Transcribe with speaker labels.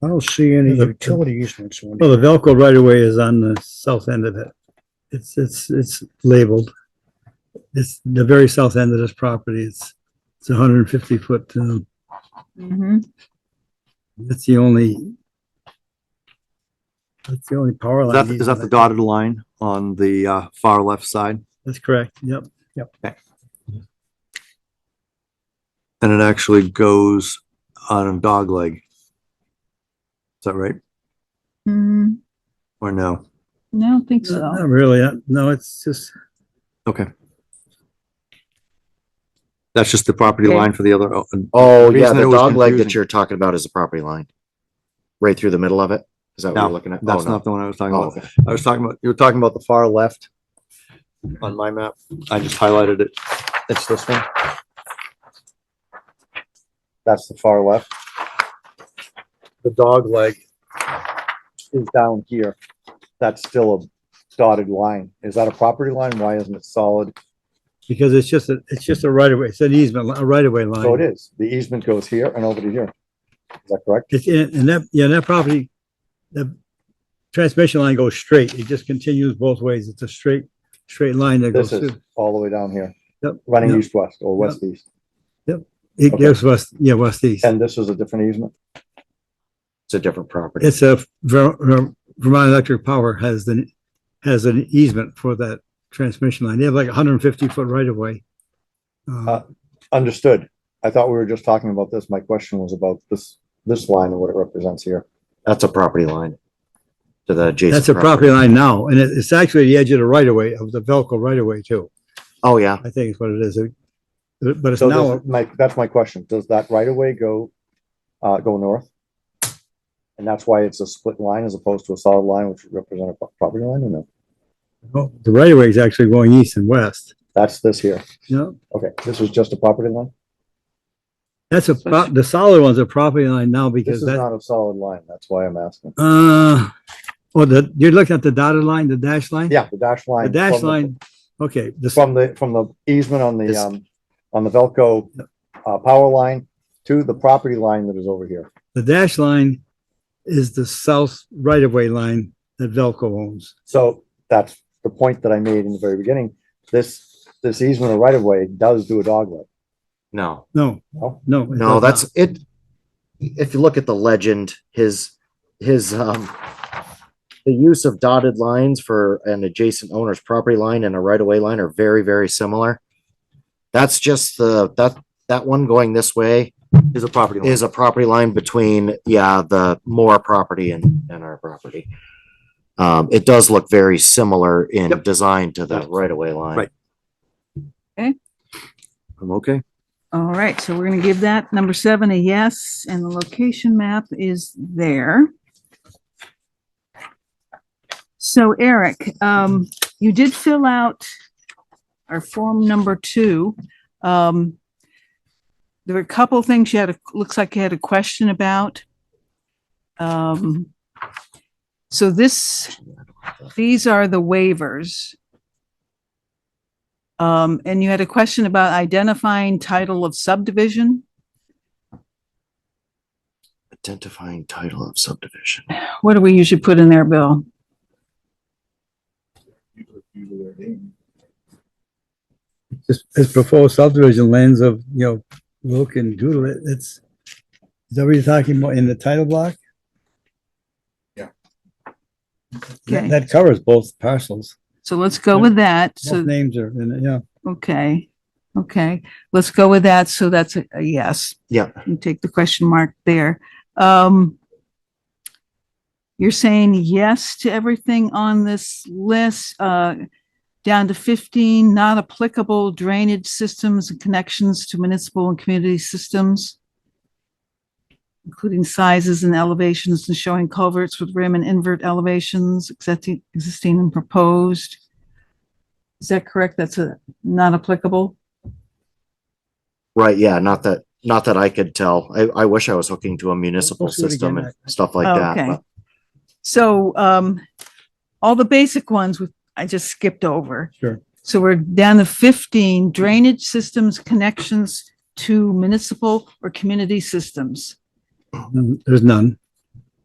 Speaker 1: I don't see any
Speaker 2: The-
Speaker 1: utility easements. on
Speaker 2: Well,
Speaker 1: it.
Speaker 2: the Velco right away is on the south end of it. It's, it's, it's labeled. It's the very south end of this property. It's, it's hundred and fifty foot. um,
Speaker 3: Mhm.
Speaker 2: That's the only. That's the only power
Speaker 4: Is
Speaker 2: line.
Speaker 4: that, is that the dotted line on the, uh, far left side?
Speaker 2: That's correct. Yep.
Speaker 4: And it actually goes on a dog leg. Is that right?
Speaker 3: Mm,
Speaker 4: Or no?
Speaker 3: I don't think so.
Speaker 2: Not really. uh, No, it's just,
Speaker 4: Okay. That's just the property
Speaker 3: Okay.
Speaker 4: line for the other, oh, and-
Speaker 5: Oh,
Speaker 4: The
Speaker 5: yeah,
Speaker 4: reason it
Speaker 5: the
Speaker 4: was
Speaker 5: dog leg that
Speaker 4: confusing-
Speaker 5: you're talking about is the property line. Right through the middle of it? Is that what
Speaker 4: No,
Speaker 5: you're looking at? Oh,
Speaker 4: that's
Speaker 5: no.
Speaker 4: not the one I was talking
Speaker 5: Oh,
Speaker 4: about.
Speaker 5: okay.
Speaker 4: I was talking about, you were talking about the far left on my map. I just highlighted it. It's this one. That's the far left. The dog leg is down here. That's still a dotted line. Is that a property line? Why isn't it solid?
Speaker 2: because it's just, a it's just a right away. It's an easement, li- a right away line.
Speaker 1: Oh,
Speaker 4: So it is. The easement goes here and over to here. Is that correct?
Speaker 2: It's in, and that, yeah, that property, the transmission line goes straight. It just continues both ways. It's a straight, straight line that goes
Speaker 4: This is
Speaker 2: through.
Speaker 4: all the way down here.
Speaker 2: Yep,
Speaker 4: Running
Speaker 2: yep.
Speaker 4: east-west or west-east.
Speaker 2: It
Speaker 4: okay.
Speaker 2: goes west, yeah, west east.
Speaker 4: And this is a different easement?
Speaker 5: It's a different property.
Speaker 2: It's a Ver- Ver- Vermont Electric Power has the, has an easement for that transmission line. They have like hundred and fifty foot right of way.
Speaker 4: Uh, Understood. I thought we were just talking about this. My question was about this, this line and what it represents here.
Speaker 5: That's a property line. To the adjacent.
Speaker 2: That's a property line now, and it, it's actually the edge of the right of way, of the Velco right of way too,
Speaker 5: Oh, yeah.
Speaker 2: I think is what it is. It- But it's
Speaker 4: So
Speaker 2: now,
Speaker 4: does- my, that's my question. Does that right of way go, uh, go north? And that's why it's a split line as opposed to a solid line, which would represent a pro- property line, or no?
Speaker 2: oh, the right of way is actually going east and west,
Speaker 4: That's this here.
Speaker 2: you know?
Speaker 4: Okay, this is just a property line?
Speaker 2: That's a, pro- the solid one's a property line now
Speaker 4: This
Speaker 2: because
Speaker 4: is
Speaker 2: that,
Speaker 4: not a solid line. That's why I'm asking.
Speaker 2: uh, well, the, you're looking at the dotted line, the dash line?
Speaker 4: Yeah, the dash line.
Speaker 2: The dash
Speaker 4: from
Speaker 2: line, okay, the, s-
Speaker 4: From the, from the easement on the,
Speaker 5: This-
Speaker 4: um, on the Velco, uh, power line to the property line that is over here.
Speaker 2: the dash line is the south right of way line that Velco owns.
Speaker 4: So that's the point that I made in the very beginning. This, this easement or right of way does do a dog leg.
Speaker 5: No,
Speaker 2: No,
Speaker 4: No?
Speaker 2: no. it does
Speaker 5: no,
Speaker 2: not.
Speaker 5: that's it. If you look at the legend, his, his, um, the use of dotted lines for an adjacent owner's property line and a right of way line are very, very similar. That's just the, that, that one going this way
Speaker 4: Is a property line.
Speaker 5: is a property line between, yeah, the Moore property and, and our property. Um, it does look very similar in
Speaker 4: Yep.
Speaker 5: design to the
Speaker 4: Yep.
Speaker 5: right-of-way line.
Speaker 4: Right. I'm okay.
Speaker 3: All right, so we're gonna give that number seven a yes, and the location map is there. So Eric, um, you did fill out our form number two. Um, there were a couple of things you had, a looks like you had a question about. Um, so this, these are the waivers. Um, and you had a question about identifying title of subdivision.
Speaker 5: Identifying title of subdivision.
Speaker 3: What do we usually put in there, Bill?
Speaker 2: It's, it's proposed subdivision lands of, you know, Wilk and Doodle, It- it's, is that what you're talking about in the title block? That-
Speaker 3: Okay.
Speaker 2: That covers both parcels.
Speaker 3: So let's go with that. So,
Speaker 2: Both names are, in it, yeah.
Speaker 3: okay, okay, let's go with that. So that's a a yes.
Speaker 5: Yeah.
Speaker 3: You take the question mark there. Um, you're saying yes to everything on this list, uh, down to fifteen, not applicable drainage systems and connections to municipal and community systems, including sizes and elevations and showing culverts with rim and invert elevations, accepting, existing and proposed. Is that correct? That's a not applicable?
Speaker 5: Right, yeah, not that, not that I could tell. I, I wish I was hooking to a municipal
Speaker 2: Let's do it
Speaker 5: system
Speaker 2: again.
Speaker 5: and stuff like that,
Speaker 3: Okay.
Speaker 5: but
Speaker 3: So, um, all the basic ones with, I just skipped over.
Speaker 2: Sure.
Speaker 3: So we're down to fifteen drainage systems connections to municipal or community systems.
Speaker 2: Mm, There's none.